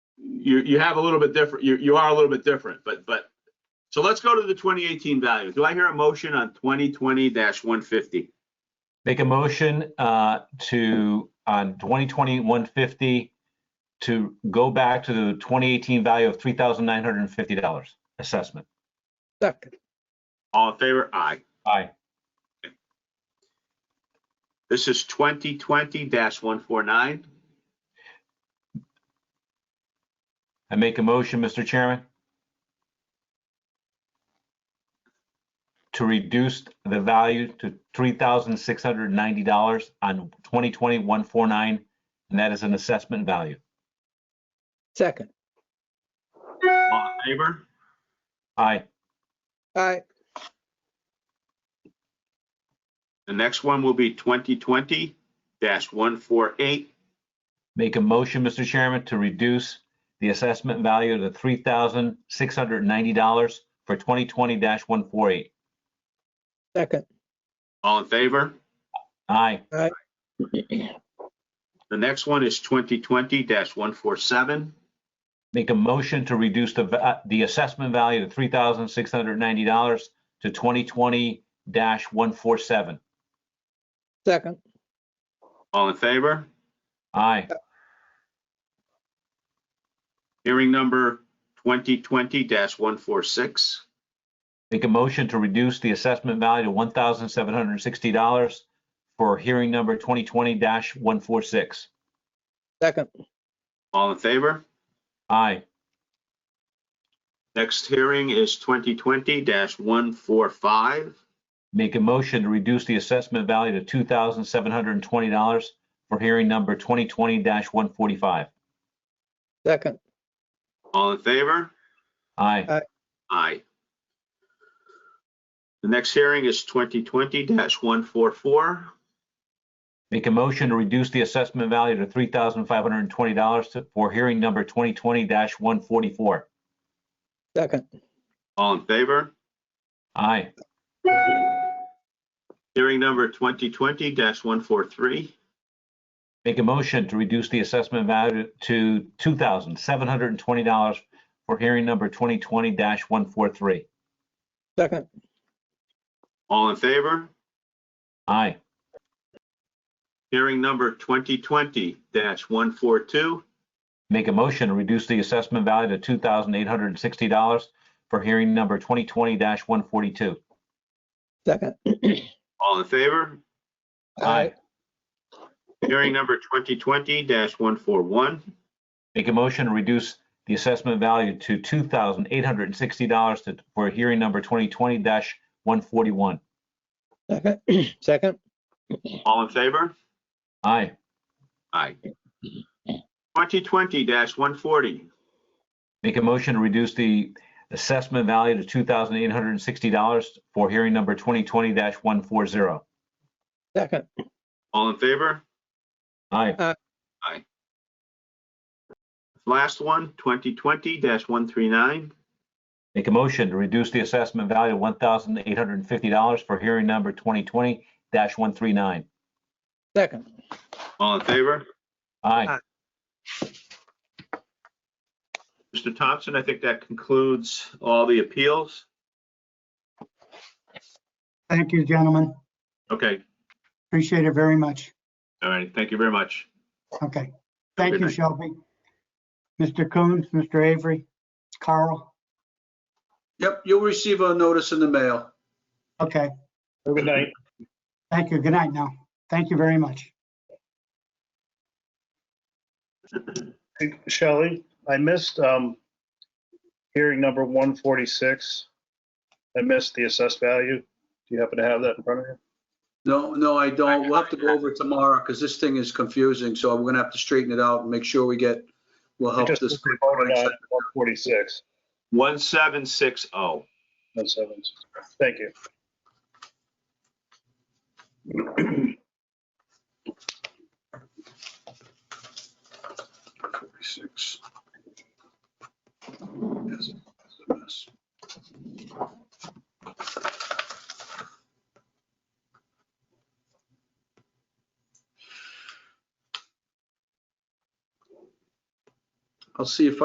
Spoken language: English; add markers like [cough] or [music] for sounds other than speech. you, you have a little bit different, you, you are a little bit different, but, but, so let's go to the 2018 value. Do I hear a motion on 2020-150? Make a motion uh, to, on 2020-150, to go back to the 2018 value of $3,950 assessment. Second, All in favor? Aye. Aye. This is 2020-149. I make a motion, Mr. Chairman, to reduce the value to $3,690 on 2020-149, and that is an assessment value. second. All in favor? Aye. Aye, The next one will be 2020-148. Make a motion, Mr. Chairman, to reduce the assessment value to $3,690 for 2020-148. second. All in favor? Aye. The next one is 2020-147. Make a motion to reduce the, va- the assessment value to $3,690 to 2020-147. Second, All in favor? Aye. Hearing number 2020-146. Make a motion to reduce the assessment value to $1,760 for hearing number 2020-146. second, All in favor? Aye. Next hearing is 2020-145. Make a motion to reduce the assessment value to $2,720 for hearing number 2020-145. second, All in favor? Aye. Aye. The next hearing is 2020-144. Make a motion to reduce the assessment value to $3,520 to- for hearing number 2020-144. second, All in favor? Aye. Hearing number 2020-143. Make a motion to reduce the assessment value to $2,720 for hearing number 2020-143. second, All in favor? Aye. Hearing number 2020-142. Make a motion to reduce the assessment value to $2,860 for hearing number 2020-142. second. All in favor? Aye. Hearing number 2020-141. Make a motion to reduce the assessment value to $2,860 to- for hearing number 2020-141. Second, [clears throat] second, All in favor? Aye. Aye. 2020-140. Make a motion to reduce the assessment value to $2,860 for hearing number 2020-140. second, All in favor? Aye. Last one, 2020-139. Make a motion to reduce the assessment value to $1,850 for hearing number 2020-139. second. All in favor? Aye. Aye. Mr. Thompson, I think that concludes all the appeals. Thank you, gentlemen. Okay, Appreciate it very much. all right, thank you very much. Okay. Have a Thank good you, night. Shelby. Mr. Coons, Mr. Avery, Carl. Yep, you'll receive a notice in the mail. Okay. Good night. Thank you. Good night now. Thank you very much. Shelley, I missed um, hearing number 146. I missed the assessed value. Do you happen to have that in front of you? No, no, I don't. We'll have to go over it tomorrow because this thing is confusing. So we're gonna have to straighten it out and make sure we get, we'll I help just this. voted on 146. 1760. That's seven. Thank you. Forty-six. I'll see if